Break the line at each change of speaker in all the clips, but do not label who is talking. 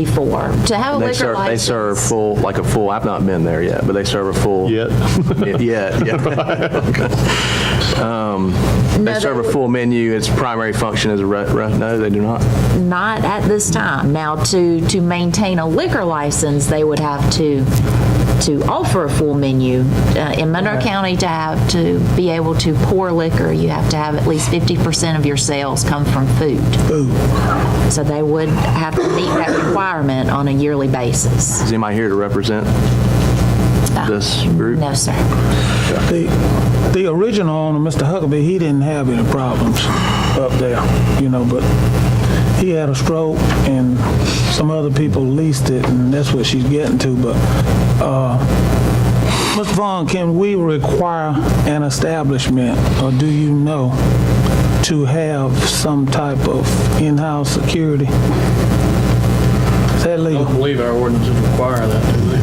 before. To have a
They
liquor
serve, they
license.
serve full, like a full, I've not been there yet, but they serve a full.
Yet.
Yeah, yeah. Um, They
No,
serve
they-
a full menu. Its primary function is a re, re- no, they do not.
Not at this time. Now, to, to maintain a liquor license, they would have to, to offer a full menu. Uh, In Monroe County, to have, to be able to pour liquor, you have to have at least 50% of your sales come from food. So they would have to meet that requirement on a yearly basis.
Is anybody here to represent this group?
Ah, No, sir.
The, the original owner, Mr. Huckabee, he didn't have any problems up there, you know, but he had a stroke and some other people leased it and that's what she's getting to, but, uh, Ms. Vaughn, can we require an establishment, or do you know, to have some type of in-house security? Is that
I don't
legal?
believe our ordinances require that, do they?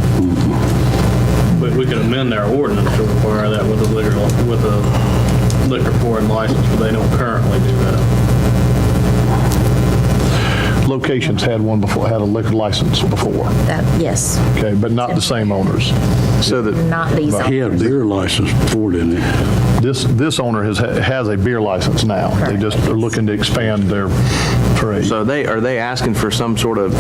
But we could amend our ordinance to require that with a liquor, with a liquor pouring license, but they don't currently do that.
Locations had one before, had a liquor license before,
That, yes,
okay, but not the same owners.
So that,
not these.
He had a beer license before, didn't he?
This, this owner has, has a beer license now. They just are looking to expand their trade.
so they, are they asking for some sort of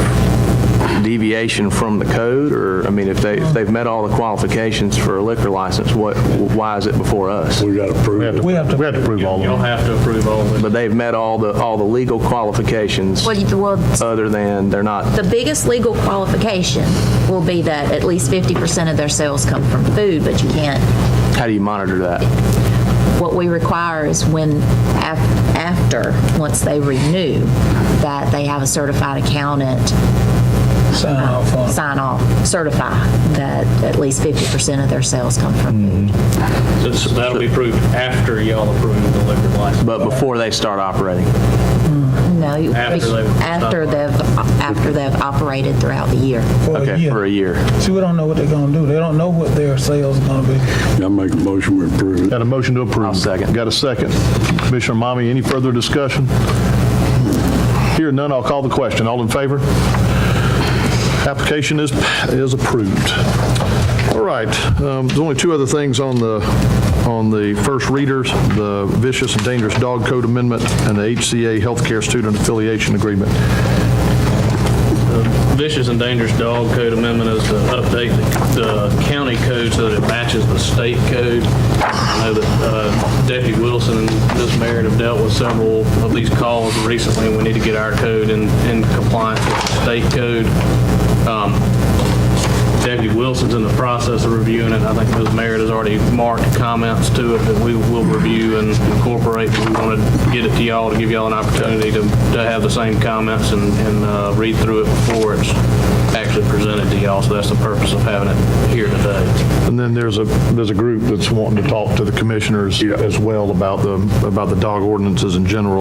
deviation from the code? Or, I mean, if they, if they've met all the qualifications for a liquor license, what, why is it before us?
We got to prove it.
We have to, we have to prove all
Y'all
of
have to approve all of it.
But they've met all the, all the legal qualifications,
Well, you- well,
other than they're not
the biggest legal qualification will be that at least 50% of their sales come from food, but you can't,
How do you monitor that?
what we require is when, af- after, once they renew, that they have a certified accountant
Sign off on it.
sign off, certify that at least 50% of their sales come from food.
So That'll be approved after y'all approve the liquor license.
But before they start operating,
No, you-
After they've-
after they've, after they've operated throughout the year.
For a
okay,
year.
for a year.
See, we don't know what they're gonna do. They don't know what their sales are gonna be.
I make a motion, we approve it.
Got a motion to approve.
I'll second.
Got a second. Commissioner Mommy, any further discussion? Here none, I'll call the question. All in favor? Application is, is approved. All right, um, there's only two other things on the, on the first readers, the vicious and dangerous dog code amendment and the HCA healthcare student affiliation agreement.
Vicious and dangerous dog code amendment is to update the the county code so that it matches the state code. I know that uh, Deputy Wilson and this mayor have dealt with several of these calls recently, and we need to get our code in in compliance with the state code. Um, Deputy Wilson's in the process of reviewing it. I think Ms. Merritt has already marked comments to it that we will review and incorporate. We want to get it to y'all to give y'all an opportunity to, to have the same comments and, and uh, read through it before it's actually presented to y'all. So that's the purpose of having it here today.
And then there's a, there's a group that's wanting to talk to the commissioners as well about the, about the dog ordinances in general.